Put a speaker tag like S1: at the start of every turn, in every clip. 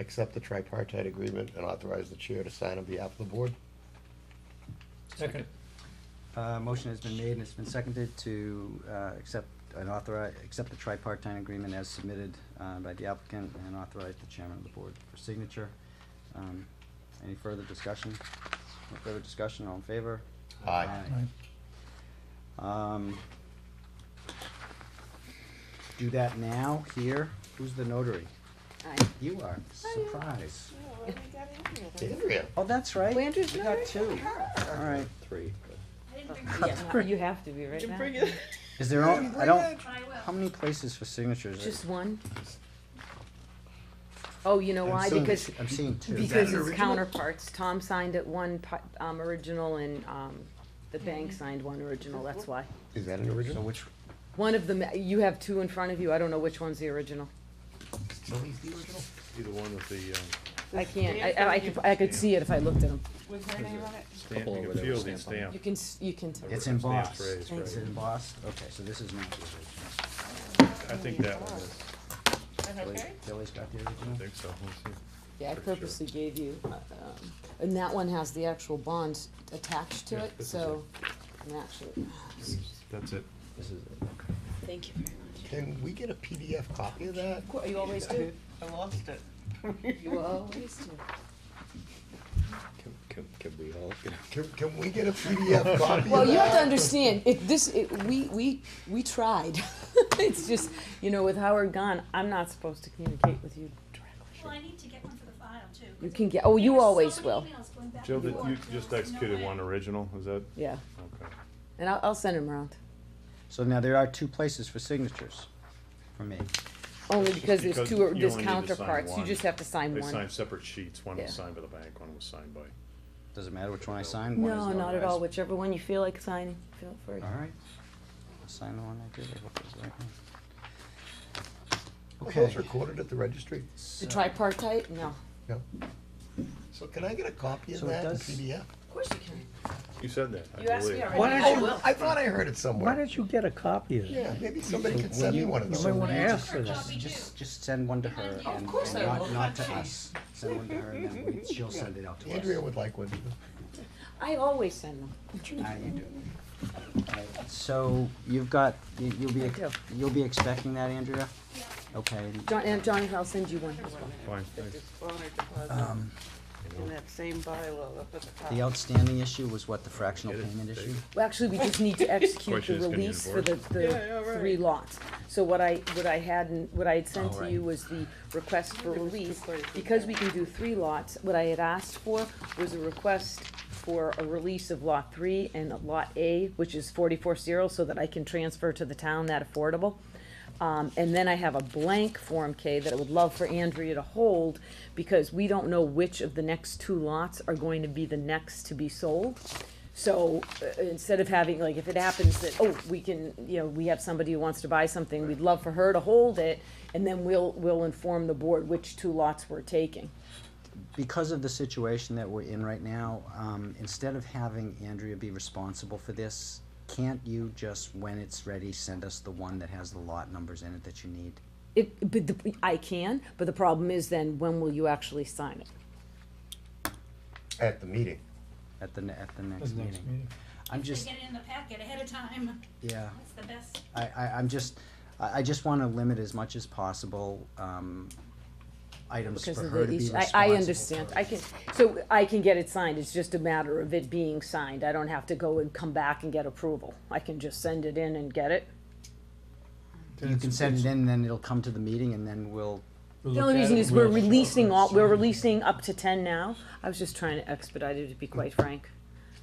S1: accept the tripartite agreement and authorize the chair to sign on behalf of the board.
S2: Second.
S3: Uh, motion has been made and it's been seconded to, uh, accept and authorize, accept the tripartite agreement as submitted, uh, by the applicant and authorize the chairman of the board for signature. Um, any further discussion? No further discussion, all in favor?
S1: Aye.
S3: Um, do that now, here, who's the notary?
S4: Aye.
S3: You are,
S4: I am.
S3: surprise.
S4: Oh, and we got Andrea there.
S1: Andrea?
S3: Oh, that's right.
S4: Landry's
S3: We
S4: notary?
S3: got two. All right.
S1: Three.
S4: Yeah, You have to be right
S2: Didn't
S4: now.
S2: bring it.
S3: Is there, all- I don't,
S5: I
S3: how
S5: will.
S3: many places for signatures?
S4: Just one? Oh, you know
S3: I'm
S4: why?
S3: seeing-
S4: Because,
S6: uh,
S3: I'm seeing two.
S4: because
S2: an
S4: it's
S2: original?
S4: counterparts. Tom signed it one, pi- um, original and, um, the bank signed one original, that's why.
S1: Is that an
S3: So
S1: original?
S3: which,
S4: One of them, you have two in front of you, I don't know which one's the original.
S1: Tilly's the original?
S6: Either one with the, um,
S4: I can't, I- I, I could, I could see it if I looked at them.
S2: With her name on it?
S6: stamp, you can feel the stamp.
S4: You can, s- you can tell.
S3: it's
S6: Stamp
S3: embossed.
S6: phrase,
S4: Thank
S3: It's
S4: you.
S3: embossed, okay, so this is not the original.
S6: I think that one is,
S3: Billy- Billy's got the
S6: I
S3: original?
S6: think so, let's see.
S4: Yeah, I
S6: Pretty sure.
S4: purposely gave you, uh, um, and that one has the actual bonds attached to
S6: Yeah,
S4: it,
S6: this is
S4: so, I'm actually,
S6: That's it.
S3: This is it.
S4: thank you very
S1: Can we get a PDF copy of that?
S4: much. You always do.
S2: I lost it.
S4: You always do.
S7: Can, can, can we all, you know,
S1: Can, can we get a PDF copy
S4: Well,
S1: of
S4: you have to
S1: that?
S4: understand, it, this, it, we, we, we tried. It's just, you know, with Howard gone, I'm not supposed to communicate with you
S5: Well,
S4: directly.
S5: I need to get one for the file too.
S4: You can get, oh, you
S5: There's so
S4: always
S5: many
S4: will,
S5: emails going back
S6: Jill,
S5: and
S6: did
S5: forth.
S6: you
S5: There was
S6: just
S5: no
S6: executed
S5: way.
S6: one original, is that,
S4: yeah,
S6: okay.
S4: and I'll, I'll send him around,
S3: So now there are two places for signatures for me.
S4: only because there's
S6: because
S4: two, or-
S6: you
S4: there's
S6: only need to sign
S4: counterparts, you
S6: one.
S4: just have to sign
S6: They
S4: one.
S6: signed separate sheets, one
S4: Yeah.
S6: was signed by the bank, one was signed by,
S3: Does it matter which one I sign? One is
S4: No, not at
S3: notarized.
S4: all, whichever one you feel like signing, feel free.
S3: All right. I'll sign the one I did. I hope it's the right one.
S1: Were
S3: Okay.
S1: Those recorded at the registry?
S4: The
S3: So-
S4: tripartite, no.
S1: No. So can I get a copy of
S3: So it
S1: that in
S3: does-
S1: PDF?
S4: Of course you can.
S6: you said that, I
S4: You asked me
S6: believe.
S4: already.
S7: Why don't
S1: Oh,
S7: you-
S1: I thought I heard it
S7: why
S1: somewhere.
S7: don't you get a copy of it?
S1: Yeah, maybe somebody can send me one of
S7: You
S1: those.
S7: might wanna
S5: I
S7: ask
S5: took
S7: for
S5: her
S7: that.
S5: copy too.
S3: Just, just send one to her
S5: Of
S3: and,
S4: course
S3: and
S4: I
S3: not,
S4: will.
S3: not to us. Send one to her and then we- she'll send it out to us.
S1: Andrea would like one.
S4: I always send them.
S3: Ah, you do. Alright, So you've got, you- you'll be,
S4: I do.
S3: you'll be expecting that, Andrea?
S5: Yeah.
S3: Okay.
S4: John, and Johnny, I'll send you one as well.
S6: Fine, thanks.
S2: Honor deposit
S3: Um,
S2: in that same bylaw up at the top.
S3: The outstanding issue was what, the fractional
S6: Get it?
S3: payment issue?
S4: Well, actually, we just need to execute the
S6: Question is, can you
S4: release for the,
S2: Yeah, yeah,
S4: the
S2: right.
S4: three lots. So what I, what I hadn't, what I had sent
S3: All
S4: to
S3: right.
S4: you was the request for
S2: There was two
S4: release.
S2: places
S4: Because
S2: there.
S4: we can do three lots, what I had asked for was a request for a release of lot three and lot A, which is forty-four zero, so that I can transfer to the town that affordable. Um, and then I have a blank Form K that I would love for Andrea to hold, because we don't know which of the next two lots are going to be the next to be sold. So, uh, instead of having, like, if it happens that, oh, we can, you know, we have somebody who wants to buy something, we'd love for her to hold it, and then we'll, we'll inform the board which two lots we're taking.
S3: Because of the situation that we're in right now, um, instead of having Andrea be responsible for this, can't you just, when it's ready, send us the one that has the lot numbers in it that you need?
S4: It, but the, I can, but the problem is then, when will you actually sign it?
S1: At the meeting.
S3: At the, ne- at the next meeting? I'm
S5: They
S3: just,
S5: get it in the packet ahead of time.
S3: yeah.
S5: That's the best.
S3: I, I, I'm just, I, I just wanna limit as much as possible, um, items
S4: Because
S3: for
S4: of
S3: her
S4: the
S3: to be
S4: issue,
S3: responsible
S4: I,
S3: for.
S4: I understand, I can, so I can get it signed, it's just a matter of it being signed, I don't have to go and come back and get approval. I can just send it in and get it.
S3: You can send it in, then it'll come to the meeting, and then we'll,
S4: The only reason is we're releasing all, we're releasing up to ten now, I was just trying to expedite it, to be quite frank.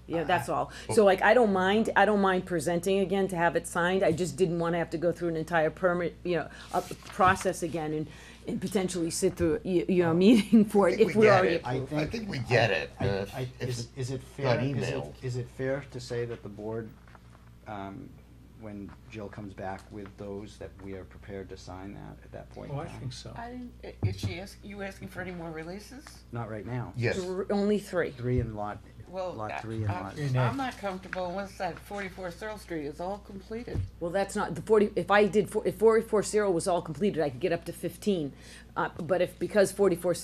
S4: Yeah, that's all, so like, I don't mind, I don't mind presenting again to have it signed, I just didn't wanna have to go through an entire permit, you know, up, process again and, and potentially sit through, you, you know, a meeting for
S1: I
S4: it
S1: think
S4: if
S1: we
S4: we're
S1: get
S4: already
S1: it.
S4: approved.
S1: I think we get it.
S3: I,
S1: Uh,
S3: I,
S1: if-
S3: is, is it
S1: not
S3: fair, is it,
S1: emailed.
S3: is it fair to say that the board, um, when Jill comes back with those, that we are prepared to sign that at that point? in
S7: Oh, I
S3: time?
S7: think so.
S2: I didn't, i- is she ask, you asking for any more releases?
S3: Not right now.
S1: Yes.
S4: Thr- Only three.
S3: Three and lot,
S2: Well,
S3: lot
S2: I-
S3: three and
S2: I'm-
S3: lot.
S7: Renee.
S2: I'm not comfortable unless that forty-four Searle Street is all completed.
S4: Well, that's not, the forty, if I did, four- if forty-four zero was all completed, I could get up to fifteen. Uh, but if, because forty-four